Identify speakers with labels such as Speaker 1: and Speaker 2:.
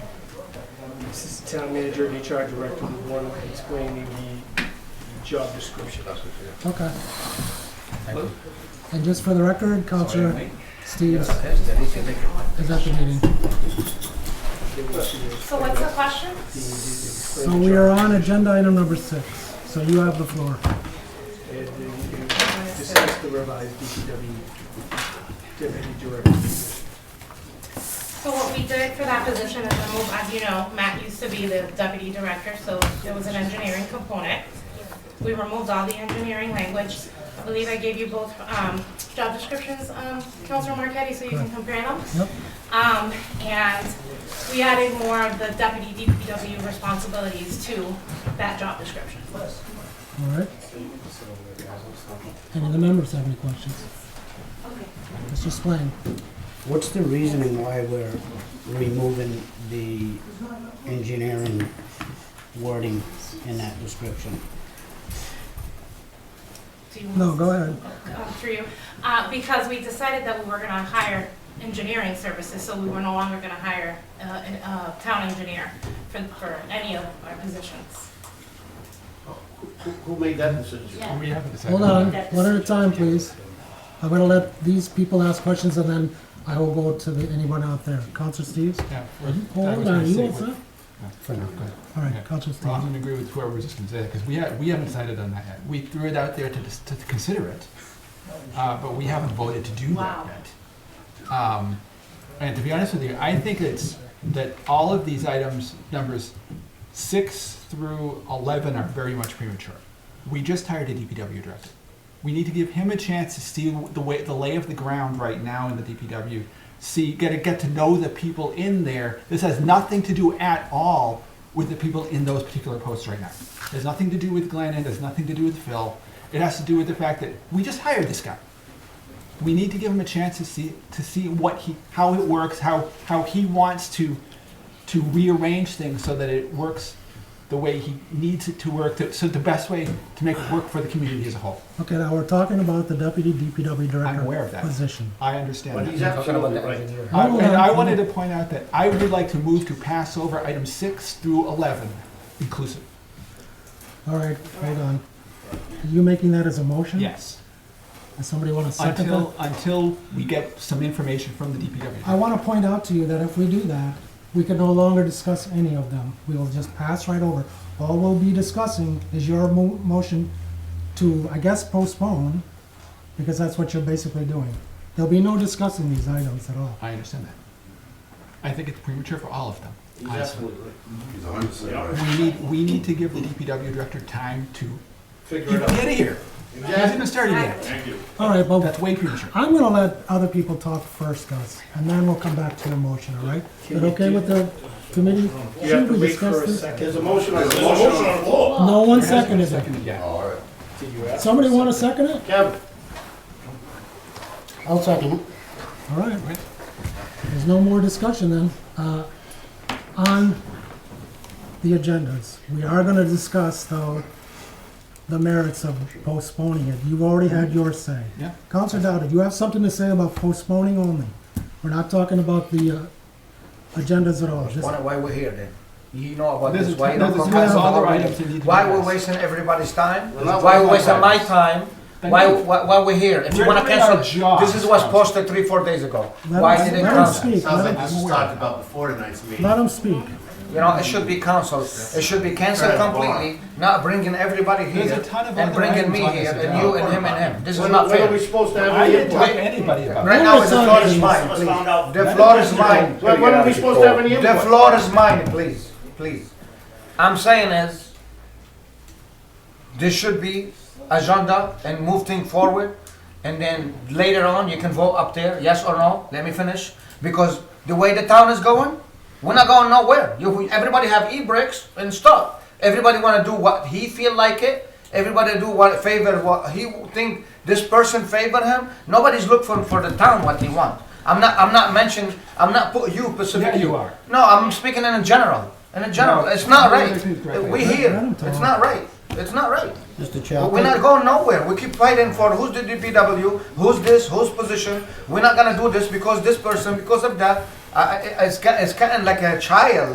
Speaker 1: Assistant Town Manager and HR Director were the one explaining the the job description.
Speaker 2: Okay. And just for the record, Counselor Steves is at the meeting.
Speaker 1: They were to
Speaker 3: So what's the question?
Speaker 1: explain
Speaker 2: So
Speaker 1: the
Speaker 2: we
Speaker 1: job
Speaker 2: are on agenda item number six. So you have the floor.
Speaker 1: and then you discuss the revised DPW deputy director. position.
Speaker 3: So what we did for that position is remove, as you know, Matt used to be the deputy director, so there was an engineering component. We removed all the engineering language. I believe I gave you both um, job descriptions, um, Counselor Marquetti, so you can compare them.
Speaker 2: Yep.
Speaker 3: Um, And we added more of the deputy DPW responsibilities to that job description.
Speaker 2: All right. Any of the members have any questions? Mr. Swain?
Speaker 4: What's the reasoning why we're removing the engineering wording in that description?
Speaker 3: Do you want
Speaker 2: No,
Speaker 3: to-
Speaker 2: go ahead.
Speaker 3: um, through you, uh, because we decided that we were gonna hire engineering services, so we were no longer gonna hire, uh, an- a town engineer for, for any of our positions.
Speaker 5: Who made that decision?
Speaker 2: Hold on, one at a time, please. I'm gonna let these people ask questions and then I will go to the, anyone out there. Counselor Steves?
Speaker 6: Yeah, I was
Speaker 2: Hold
Speaker 6: gonna
Speaker 2: on, you
Speaker 6: say
Speaker 2: all set?
Speaker 6: with-
Speaker 4: For now.
Speaker 2: All
Speaker 6: Yeah.
Speaker 2: right, Counselor
Speaker 6: Well, I'm
Speaker 2: Steves.
Speaker 6: gonna agree with whoever was just gonna say that, because we ha we haven't decided on that yet. We threw it out there to, dis- to consider it, uh, but we haven't voted to do
Speaker 3: Wow.
Speaker 6: that yet. Um, and to be honest with you, I think it's, that all of these items, numbers six through eleven are very much premature. We just hired a DPW director. We need to give him a chance to see the way, the lay of the ground right now in the DPW. See, get to get to know the people in there. This has nothing to do at all with the people in those particular posts right now. There's nothing to do with Glennon. There's nothing to do with Phil. It has to do with the fact that we just hired this guy. We need to give him a chance to see to see what he how it works, how how he wants to to rearrange things so that it works the way he needs it to work, to, so the best way to make it work for the community as a whole.
Speaker 2: Okay, now we're talking about the deputy DPW
Speaker 6: aware of
Speaker 2: director
Speaker 6: that.
Speaker 2: position.
Speaker 6: I understand
Speaker 5: But
Speaker 6: that.
Speaker 5: he's absolutely right.
Speaker 6: I-
Speaker 2: Hold
Speaker 6: and
Speaker 2: on,
Speaker 6: I
Speaker 2: hold
Speaker 6: wanted
Speaker 2: on.
Speaker 6: to point out that I would like to move to pass over item six through eleven inclusive.
Speaker 2: All right, hold on. Are you making that as a motion?
Speaker 6: Yes.
Speaker 2: Does somebody want to Hmm. second
Speaker 6: Until
Speaker 2: that?
Speaker 6: until we get some information from the
Speaker 2: I
Speaker 6: DPW.
Speaker 2: want to point out to you that if we do that, we can no longer discuss any of them. We will just pass right over. All we'll be discussing is your mo- motion to, I guess, postpone, because that's what you're basically doing. There'll be no discussing these items at all.
Speaker 6: I understand that. I think it's premature for all of them.
Speaker 5: He's
Speaker 6: honestly.
Speaker 5: absolutely right.
Speaker 7: He's a hundred percent right.
Speaker 6: We need, we need to give the DPW director time to
Speaker 5: Figure
Speaker 6: get
Speaker 5: it
Speaker 6: out
Speaker 5: out.
Speaker 6: of here. It hasn't even started yet.
Speaker 2: All right, but
Speaker 6: That's way premature.
Speaker 2: I'm gonna let other people talk first, Gus, and then we'll come back to your motion, all right? Is it okay with the committee?
Speaker 1: You have
Speaker 2: Should
Speaker 1: to
Speaker 2: we
Speaker 1: wait for
Speaker 2: discuss
Speaker 1: a
Speaker 2: this?
Speaker 1: second.
Speaker 5: There's a motion on the
Speaker 7: There's a motion
Speaker 5: floor.
Speaker 7: on the floor.
Speaker 2: No one
Speaker 6: It hasn't
Speaker 2: seconded
Speaker 6: been
Speaker 2: it.
Speaker 6: seconded yet.
Speaker 7: All right.
Speaker 5: Did you ask?
Speaker 2: Somebody wanna second it?
Speaker 5: Kevin,
Speaker 4: I'll second it.
Speaker 2: All right.
Speaker 6: Right.
Speaker 2: There's no more discussion then. Uh, On the agendas, we are going to discuss though the merits of postponing it. You've already had your say.
Speaker 6: Yeah.
Speaker 2: Counselor Dowdy, you have something to say about postponing only. We're not talking about the uh, agendas at all. Just-
Speaker 8: Wonder why we're here then. You know about
Speaker 6: This
Speaker 8: this,
Speaker 6: is-
Speaker 8: why you don't
Speaker 6: this is
Speaker 8: come back
Speaker 6: other
Speaker 8: already?
Speaker 6: items that need to be
Speaker 8: Why we're
Speaker 6: addressed.
Speaker 8: wasting everybody's time?
Speaker 5: We're not
Speaker 8: Why we're
Speaker 5: wasting
Speaker 8: wasting my
Speaker 5: everybody's
Speaker 8: time?
Speaker 6: Thank
Speaker 8: Why,
Speaker 6: you.
Speaker 8: why, why we're here? If
Speaker 6: We're
Speaker 8: you wanna
Speaker 6: doing our
Speaker 8: cancel,
Speaker 6: jobs.
Speaker 8: this is was posted three, four days ago.
Speaker 2: Let
Speaker 8: Why
Speaker 2: us-
Speaker 8: didn't
Speaker 2: let us
Speaker 8: cancel?
Speaker 2: speak.
Speaker 7: Sounds
Speaker 2: Let
Speaker 7: like
Speaker 2: him-
Speaker 7: this was talked about before tonight's meeting.
Speaker 2: Let him speak.
Speaker 8: You know, it should be canceled. It should be canceled
Speaker 7: Right, come on.
Speaker 8: completely, not bringing everybody
Speaker 6: There's
Speaker 8: here
Speaker 6: a ton of
Speaker 8: and
Speaker 6: other
Speaker 8: bringing
Speaker 6: items
Speaker 8: me
Speaker 6: on this
Speaker 8: here and
Speaker 6: agenda.
Speaker 8: you and him and him. This is
Speaker 5: when
Speaker 8: not
Speaker 5: when are we
Speaker 8: fair.
Speaker 5: supposed to have
Speaker 6: I
Speaker 5: any
Speaker 6: didn't
Speaker 5: input?
Speaker 6: talk to anybody about it.
Speaker 8: Right now, the
Speaker 2: Some
Speaker 8: floor
Speaker 2: of
Speaker 8: is
Speaker 2: these-
Speaker 8: mine,
Speaker 7: Let's
Speaker 8: please.
Speaker 7: find out.
Speaker 8: The floor is mine.
Speaker 5: When when are we supposed to have any
Speaker 8: The
Speaker 5: input?
Speaker 8: floor is mine, please, please. I'm saying is, this should be agenda and move thing forward, and then later on, you can vote up there, yes or no, let me finish, because the way the town is going, we're not going nowhere. You, everybody have e-bricks and stuff. Everybody wanna do what he feel like it, everybody do what favor, what he think this person favor him. Nobody's look for, for the town what he want. I'm not, I'm not mentioning, I'm not put you
Speaker 6: Yeah,
Speaker 8: specifically.
Speaker 6: you are.
Speaker 8: No, I'm speaking in a general. In a general,
Speaker 6: No,
Speaker 8: it's not
Speaker 6: you're
Speaker 8: right.
Speaker 6: making it correctly.
Speaker 8: We
Speaker 2: Let him
Speaker 8: here,
Speaker 2: talk.
Speaker 8: it's not right. It's not right.
Speaker 4: Mr. Chair.
Speaker 8: We're not going nowhere. We keep fighting for who's the DPW, who's this, whose position. We're not gonna do this because this person, because of that. I, I, it's, ca- it's kind of like a child.